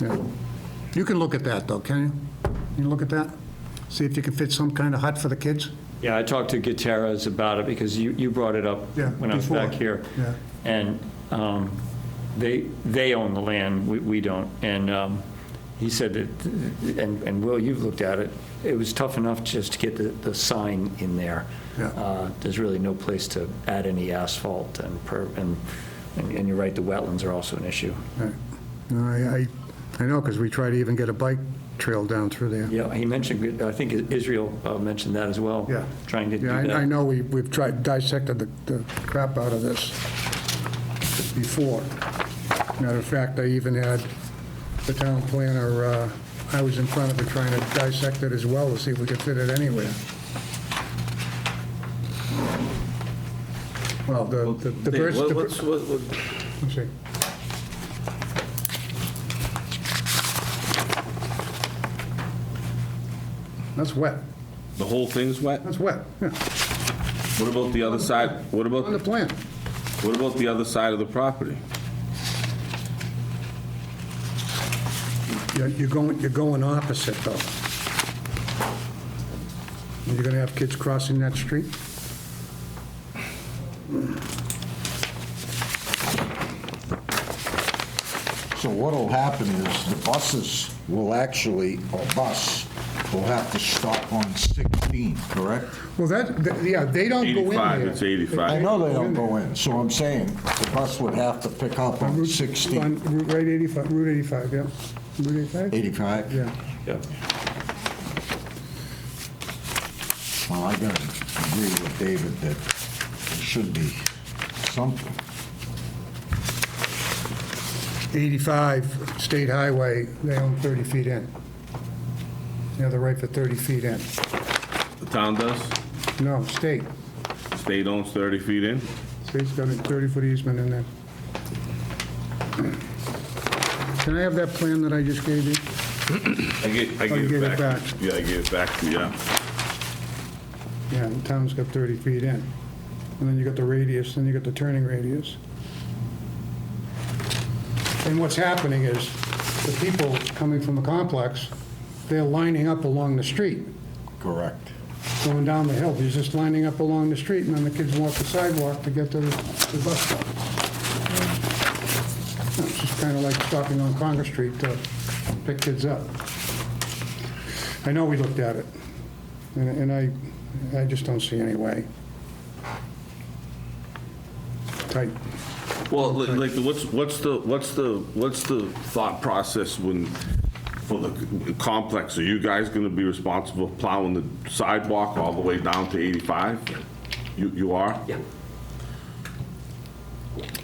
Yeah. You can look at that, though, can you? Can you look at that? See if you can fit some kind of hut for the kids? Yeah, I talked to Gutierrez about it because you, you brought it up Yeah, when I was before. back here. Yeah. And um, they, they own the land, we, we don't. And um, he said that, and, and Will, you've looked at it, it was tough enough just to get the, the sign in there. Yeah. Uh, There's really no place to add any asphalt and, per- and, and and you're right, the wetlands are also an issue. Right. No, I, I- I know, because we try to even get a bike trail down through there. Yeah, he mentioned, I think Israel uh, mentioned that as well. Yeah. Trying to do Yeah, that. I I know, we- we've tried dissected the the crap out of this before. Matter of fact, I even had the town planner, uh, I was in front of it trying to dissect it as well to see if we could fit it anywhere. Well, the the the Dave, birds... what- the bir- what's- what- what- Let's see. That's wet. The whole thing's wet? That's wet. Yeah, What about the other side, what on the about, plan. what about the other side of the property? You're- You're going, you're going opposite, though. You're going to have kids crossing that street? So what'll happen is the buses will actually, or bus, will have to stop on 16, correct? Well, that, th- yeah, they don't go in there. 85, it's 85. I know they don't go in, so I'm saying the bus would have to pick up on Route- 16, on Route right 85, Route 85, yeah. Route 85? 85? Yeah. Yeah. Well, I gotta agree with David that there should be something. 85 State Highway, they own 30 feet in. They have the right for 30 feet in. The town does, No, state. state owns 30 feet in. State's got a 30-foot easement in there. Can I have that plan that I just gave you? I get, I Oh, you give gave it it back. back. Yeah, I give it back to you, yeah. Yeah, the town's got 30 feet in. And then you got the radius, then you got the turning radius. And what's happening is, the people coming from the complex, they're lining up along the street. Correct. going down the hill, he's just lining up along the street, and then the kids walk the sidewalk to get to the the bus stop. It's just kind of like stopping on Congress Street to pick kids up. I know we looked at it, and and I, I just don't see any way. Tight. Well, li- like, what's, what's the, what's the, what's the thought process when, for the complex? Are you guys gonna be responsible for plowing the sidewalk all the way down to 85? You, you are? Yeah.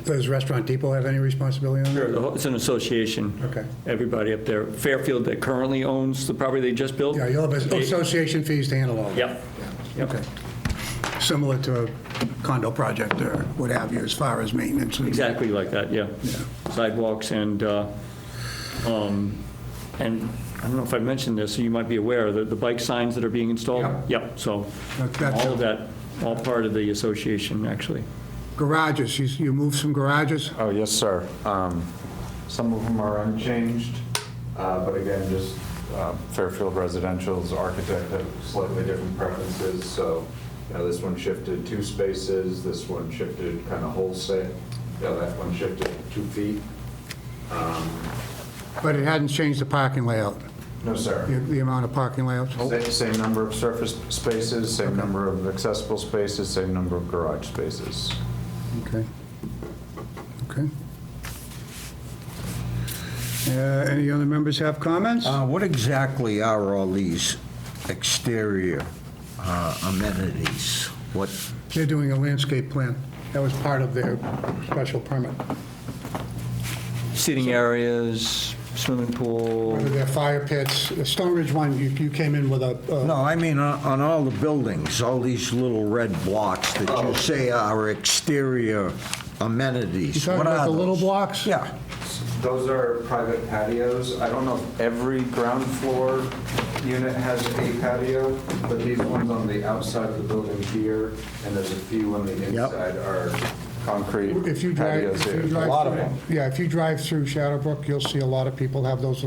Does Restaurant Depot have any responsibility on that? Sure, the whole- It's an association. Okay. Everybody up there. Fairfield that currently owns the property they just built? Yeah, you'll have They- association fees to handle all that. Yep. Okay. Similar to a condo project or what have you, as far as maintenance. and- Exactly like that, yeah. Sidewalks and, uh, um, and I don't know if I mentioned this, you might be aware, the, the bike signs that are being installed? Yep. Yep, so That- that's- all of that, all part of the association, actually. Garages, you- you moved some garages? Oh, yes, sir. Um, Some of them are unchanged, uh, but again, just uh, Fairfield Residential's architect had slightly different preferences, so, you know, this one shifted two spaces, this one shifted kind of wholesale, yeah, that one shifted two feet. But it hadn't changed the parking layout, No, sir. the the amount of parking layouts? Sa- Same number of surface spaces, same number of accessible spaces, same number of garage spaces. Okay. Okay. Uh, Any other members have comments? Uh, What exactly are all these exterior uh, amenities? What, They're doing a landscape plan. That was part of their special permit. Seating areas, swimming pool, Whether they're fire pits, the Stone Ridge one, you you came in with a... uh, No, I mean, on on all the buildings, all these little red blocks that Oh. you say are exterior You amenities. talking What about are the little those? blocks? Yeah. Those are private patios. I don't know if every ground floor unit has a patio, but these ones on the outside of the building here, and there's a few on the inside are concrete If you drive... patios if you here. drive A lot of through- them. Yeah, if you drive through Shadowbrook, you'll see a lot of people have those